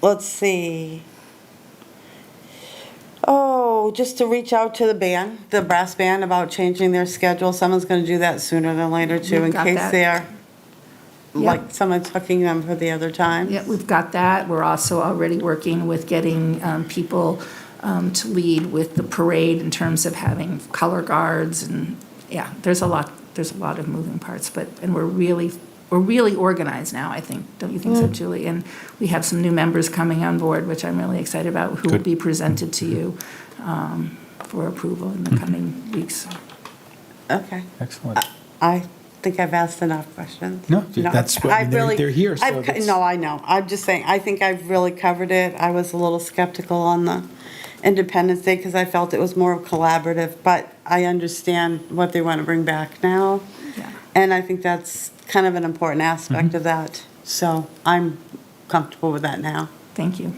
let's see. Oh, just to reach out to the band, the brass band, about changing their schedule. Someone's gonna do that sooner than later too, We've in got case that. they are, Yep. like, someone's hooking them for the other time. Yeah, we've got that. We're also already working with getting um, people um, to lead with the parade in terms of having color guards and, yeah, there's a lot, there's a lot of moving parts, but, and we're really, we're really organized now, I think. Don't you think so, Julie? And we have some new members coming on board, which I'm really excited about, who will Good. be presented to you um, for approval in Mm-hmm. the coming weeks. Okay. Excellent. I think I've asked enough questions. No, that's what- I've they're- really- they're here, so I've co- that's- No, I know. I'm just saying, I think I've really covered it. I was a little skeptical on the Independence Day because I felt it was more collaborative, but I understand what they want to bring back now. Yeah. And I think that's kind of an important Mm-hmm. aspect of that. So I'm comfortable with that now. Thank you.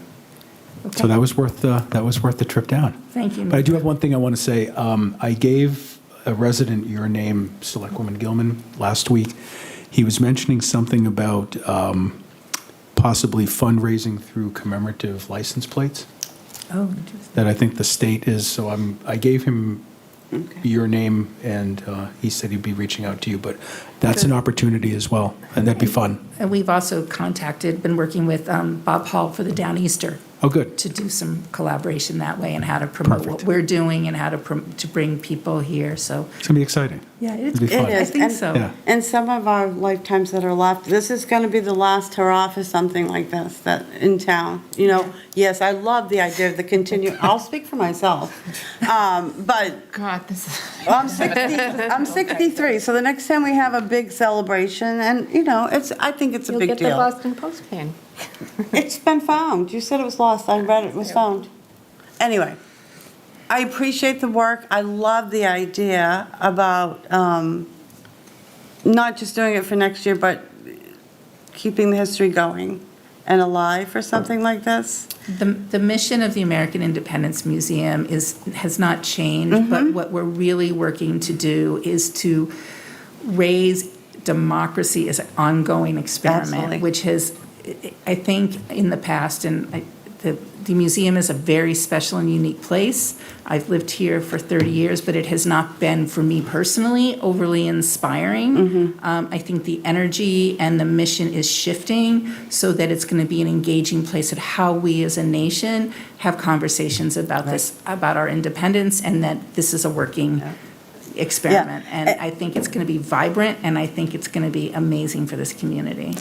So Okay, that was worth, the that was worth the trip down. thank you. But I do have one thing I want to say. Um, I gave a resident your name, Selectwoman Gilman, last week. He was mentioning something about um, possibly fundraising through commemorative license plates Oh, interesting. that I think the state is, so I'm, I gave him your name, and uh, he said he'd be reaching out to you, but that's an opportunity as well, and that'd be fun. And we've also contacted, been working with um, Bob Hall for the Downeaster Oh, good. to do some collaboration that way and how to promote what Perfect. we're doing and how to, prom- to bring people here, so. It's gonna be exciting. Yeah, it's, It'll be fun. I think and- so. Yeah. And some of our lifetimes that are left, this is going to be the last hurrah for something like this that in town. You know, yes, I love the idea of the continue. I'll speak for myself, um, but God, this is. Well, I'm 60, I'm 63, so the next time we have a big celebration, and, you know, it's, I think it's a You'll big get the deal. Boston Post fan. It's been found. You said it was lost. I read it was found. Anyway, I appreciate the work. I love the idea about um, not just doing it for next year, but keeping the history going and alive for something like this. The, the mission of the American Independence Museum is, has not changed, Mm-hmm. but what we're really working to do is to raise democracy as an ongoing Absolutely. experiment, which has, I- I think, in the past, and I- the, the museum is a very special and unique place. I've lived here for 30 years, but it has not been, for me personally, overly inspiring. Um, I think the energy and the mission is shifting so that it's going to be an engaging place at how we as a nation have conversations about this, about our independence, and that this is a working experiment. And A- I think it's going to be vibrant, and I think it's going to be amazing for this community.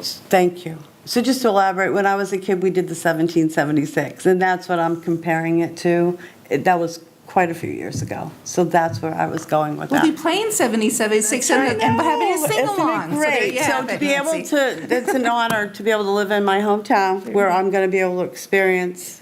Thank you. So just to elaborate, when I was a kid, we did the 1776, and that's what I'm comparing it to. It- That was quite a few years ago. So that's where I was going with We'll that. be playing 77, 600, and we're having a Oh, Isn't it sing-along. So there Great. you So have to it, be able Nancy. to, it's an honor to be able to live in my hometown where I'm going to be able to experience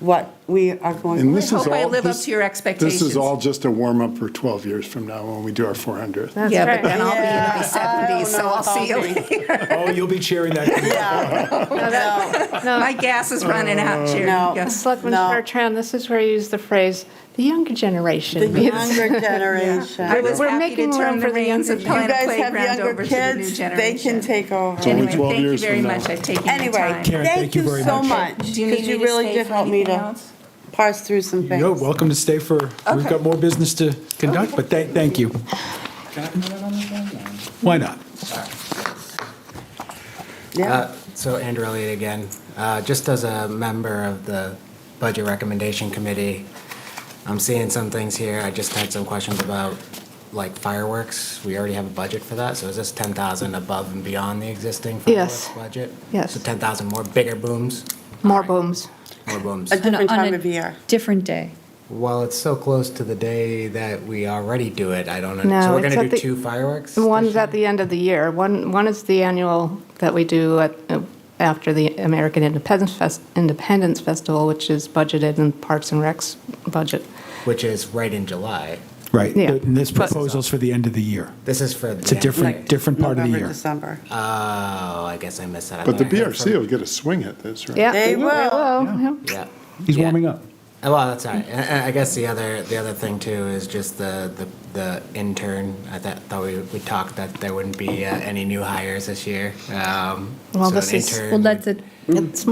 what we are going And to. this I is hope I all- live up this- to your This expectations. is all just a warm-up for 12 years from now when we do our 400th. That's Yeah, but right. then I'll be in Yeah, my I 70s, don't so know I'll if see you I'll be. later. Oh, you'll be cheering that. No, that- My No, gas is running out, Jerry. No. Yes. Selectman No. Bertrand, this is where you use the phrase, the younger generation. The It's- younger I generation. was We're happy to making room turn the for the reins younger You of generation. Planet guys have Playground younger over to the new kids, they can generation. take over. Only Anyway, 12 thank you years very from much. now. I've taken your Anyway, time. Karen, thank you so much. Do you need Because me you to really stay did for help me anything to else? parse through some things. You're welcome to stay for, we've Okay. got more business to conduct, but thank, thank you. Why not? Yeah. Uh, So Andrelli again, Uh, just as a member of the Budget Recommendation Committee, I'm seeing some things here. I just had some questions about like fireworks. We already have a budget for that, so is this 10,000 above and beyond the existing Yes. fireworks budget? Yes. So 10,000 more bigger booms? More booms. More booms. A different on a- time of year. Different day. Well, it's so close to the day that we already do it, I don't know. No, So we're it's going at to do the- two fireworks? One's at the end of the year. One, one is the annual that we do at, uh, after the American Independence Fest, Independence Festival, which is budgeted in Parks and Rec's budget. Which is right in July. Right, Yeah. and this But- proposal's for the end of the year. This is for the. It's a different, Right. different part of the November, year. December. Oh, I guess I missed that. I But the thought I heard BRC from- will get a swing at this, right? Yeah. They will. yeah. Yeah. He's Yeah. warming up. Oh, Well, that's all right. I, I- I guess the other, the other thing too is just the, the, the intern. I thought, thought we, we talked that there wouldn't be uh, any new hires this year. Um, Well, so this an is- intern Well, that's a, It's